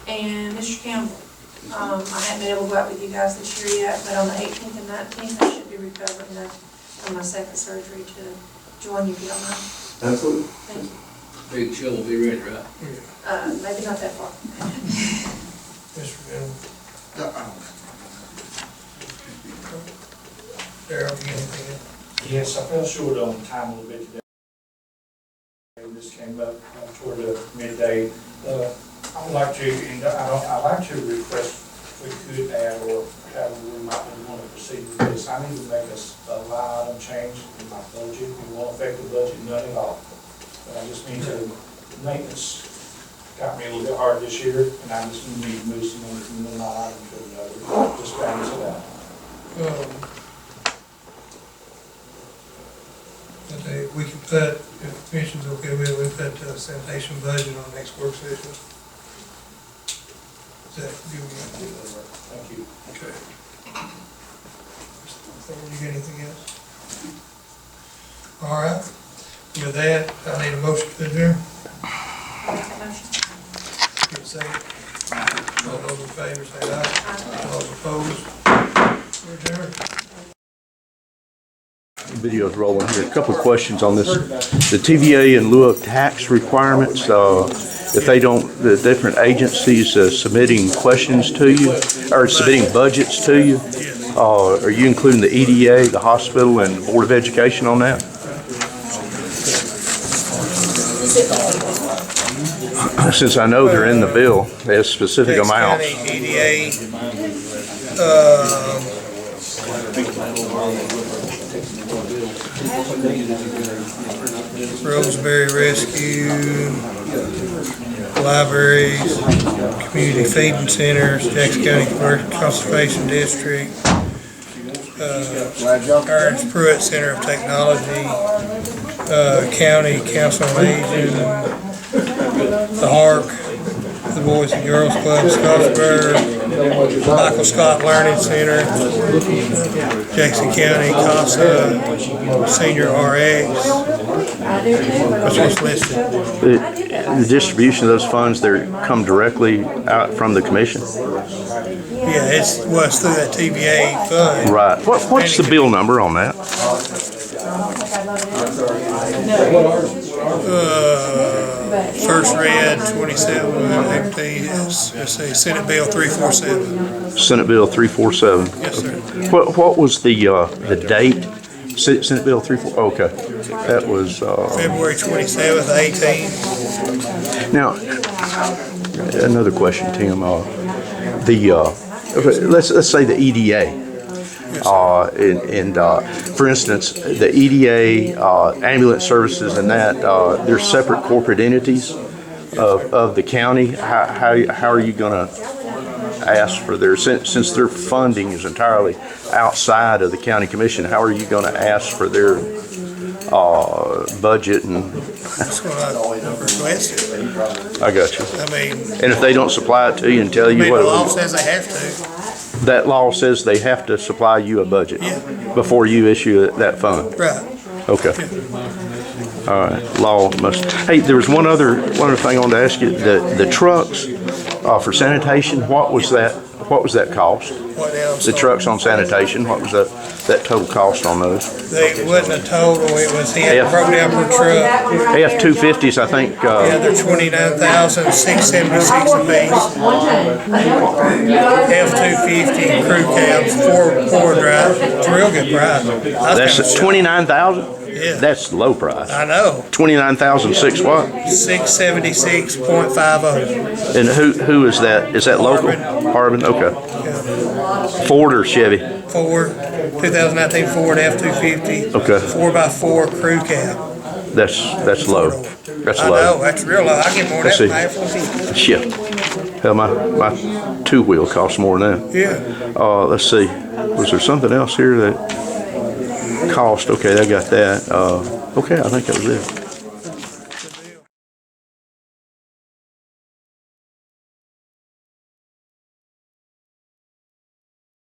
and Mr. Campbell. Um, I haven't been able to go out with you guys this year yet, but on the eighteenth and nineteenth, I should be recovered enough from my second surgery to join you if you don't mind. Absolutely. Thank you. Big chill will be ready, right? Yeah, Uh, maybe not that far. Mr. Bell, Darrell, you anything? Yes, I fell short on time a little bit today. And This came up uh, toward the midday. Uh, I would like to, and I don't, I'd like to request if we could add or have, we might want to proceed with this. I need to make a, s- a line item change in my budget. It won't affect the budget, none at all. But I just need to, maintenance got me a little bit hard this year, and I just need to move some money from one line item to another, just balance it out. Um, I think we can put, if the commission's okay with it, we put uh, sanitation budget on next work session. Is that, you, Thank you. okay? You got anything else? All right, with that, I need a motion to adjourn. Motion. Give a second. All those in favor say aye. All those opposed, we're adjourned. Video's rolling here. A couple of questions on this. The TVA in lieu of tax requirements, uh, if they don't, the different agencies uh, submitting questions to you, or submitting budgets to you, uh, are you including the EDA, the hospital, and Board of Education on that? Since I know they're in the bill, they have specific Dix amounts. County EDA, um, Roseberry Rescue, libraries, community feeding centers, Jackson County Commercial Conservation District, uh, Ernst Pruitt Center of Technology, uh, County Council on Aging, the Hark, the Boys and Girls Club, Scottsburg, Michael Scott Learning Center, Jackson County, CASA, Senior RX, which was listed. The the distribution of those funds, they come directly out from the commission? Yeah, it's, well, it's through that TBA fund. Right. What, what's the bill number on that? Uh, First read twenty-seven fifteen, it's, it's a Senate Bill three four seven. Senate Bill 347. Yes, sir. What, what was the, uh, the date? Se- Senate Bill 34, okay. That was, uh, February twenty-seventh, eighteen. now, another question, Tim. Uh, The, uh, okay, let's, let's say the EDA. Uh, and, and, uh, for instance, the EDA, uh, ambulance services and that, uh, they're separate corporate entities of, of the county. How, how, how are you gonna ask for their, since, since their funding is entirely outside of the county commission, how are you gonna ask for their, uh, budget and, That's what I requested. I got you. I mean, And if they don't supply it to you and tell I mean, you the law what, says they have to. that law says they have to supply you a budget Yeah. before you issue that fund. Right. Okay. All right, law must, hey, there was one other, one other thing I wanted to ask you, the, the trucks, uh, for sanitation, what was that, what was that cost? What else? The trucks on sanitation, what was that, that total cost on those? They wasn't a total, it was, he had Yeah. broke down per truck. F-250s, I think, The uh, other twenty-nine thousand, six seventy-six a piece. F two fifty, crew cabs, four, four drive, it's a real good price. I was kinda that's shocked. twenty-nine thousand? Yeah. That's low price. I know, Twenty-nine thousand six what? six seventy-six point five oh. And who, who is that? Is that local? Harbin, okay. Ford or Chevy? Ford, two thousand nineteen Ford F two fifty. Okay. Four by four crew cab. That's, that's low. That's I know, low. that's real low, I get more than that Let's for see. my F one fifty. Shit. Hell, my, my two-wheel costs more than that. Yeah, Uh, let's see, was there something else here that cost? Okay, I got that. Uh, okay, I think that was it.